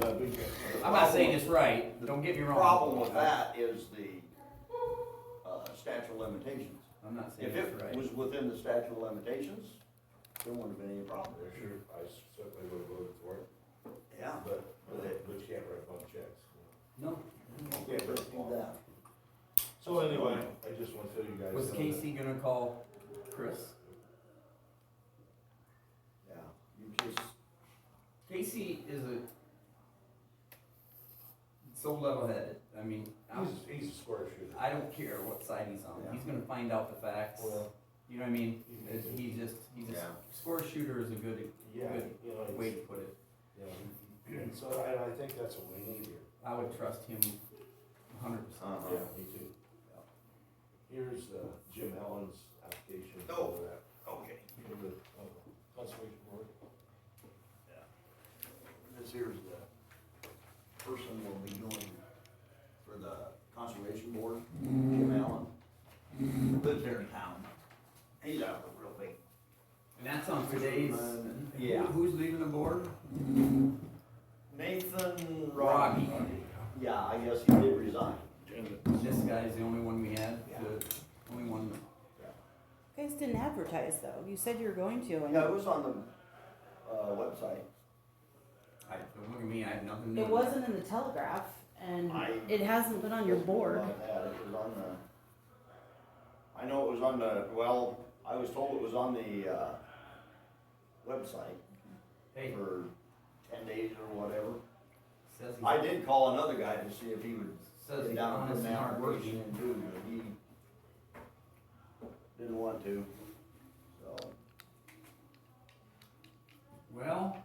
we get. I'm not saying it's right, The don't get me wrong. Problem with that is the, uh, statute of limitations. I'm not saying If it's it right. was within the statute of limitations, there wouldn't have been any problem. I sure, I certainly would have voted for it, Yeah. but, but you can't write bump checks. No, Yeah, but do that. So anyway, I just want to tell you guys. was something. Casey gonna call Chris? Yeah, you just, Casey is a so level-headed, I mean, I'm, He's, he's a square shooter. I don't care what side he's on, Yeah. he's gonna find out the facts, Well, you know what I mean? He's- It- He just, he just, Yeah. score shooter is a good yeah, Good. you know, way it's, to put it, you know, and so I, I think that's what we need here. I would trust him hundred percent. uh-huh. Yeah, me too. Here's, uh, Jim Allen's application Oh. for that, Okay. for the uh, conservation board. This here's the person will be doing for the conservation board, Mm-hmm. Jim Allen, lives here in town. He's out of a real big. And that's on today's, Yeah. Who- who's leaving the board? Nathan Rocky. Yeah, I guess he did resign. This guy's the only one we had, the only one that You guys didn't advertise though. You said you were going to, and Yeah, it was on the, uh, website. I, don't look at me, I have nothing to do it with wasn't in the Telegraph, and I- it hasn't been on your board. About that, It was on the, I know it was on the, well, I was told it was on the, uh, website Hey, for ten days or whatever. says I he's, did call another guy to see if he would says sit he's down honest and and out hardworking. working and doing it. He didn't want to, so. Well,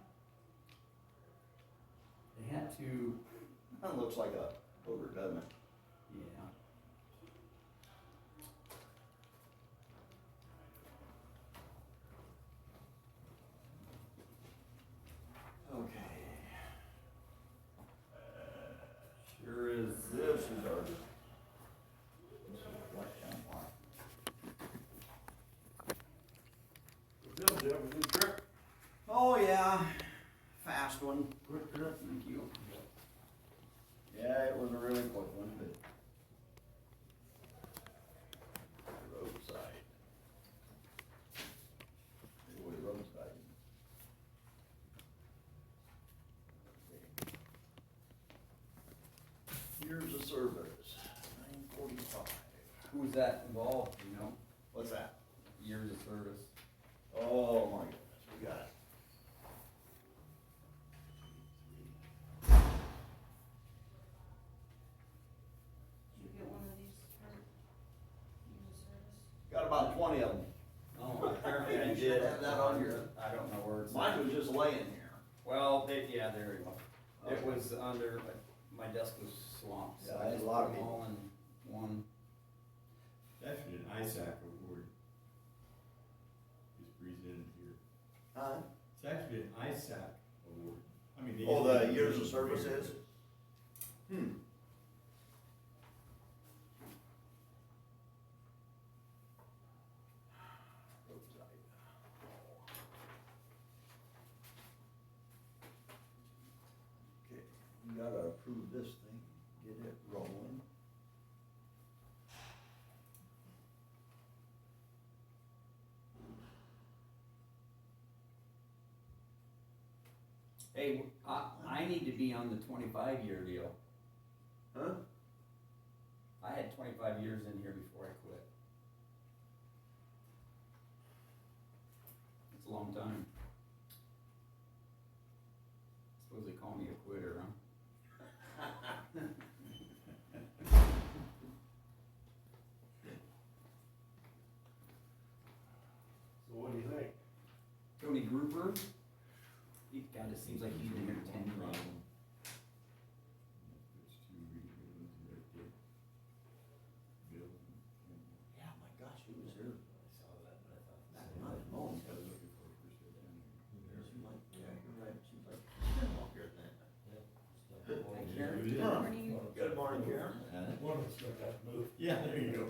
they had to, That looks like a booger, doesn't it? yeah. Okay. Sure is. This is our. this is what town line. Bill, did you have a good trip? Oh, yeah, fast one. Thank you. Yeah, it was a really quick one, but. Roadside. It was roadside. Years of service, nine forty-five. Who was that involved, you know, What's that? years of service? Oh, my goodness, we got it. Did you get one of these for Got about twenty of them. Oh, apparently You I should did. have that on your- I don't know where it's. Mine was just laying here. Well, they, yeah, there you go. It Okay. was under, my desk was swamped, so Yeah, I I had a just lot of put them all in one. That's an ISAC award. Just presented here. Huh? It's actually an ISAC award. I mean. they Oh, just- the years of service is? Hmm. Okay, you gotta approve this thing, get it rolling. Hey, I, I need to be on the twenty-five year deal. Huh? I had twenty-five years in here before I quit. It's a long time. Suppose they call me a quitter, huh? So what do you think? Tony Gruber? He, God, it seems like he's been here ten years. There's two reasons right there. Bill and- Yeah, my gosh, he was here. I saw that, but I thought. Not at all. I was looking for Chris to come in. She like, yeah, you're right, she's like, she's been walking here then. There. Karen? Yeah. Good morning, Karen. Huh? One of us got that move. Yeah, there you go.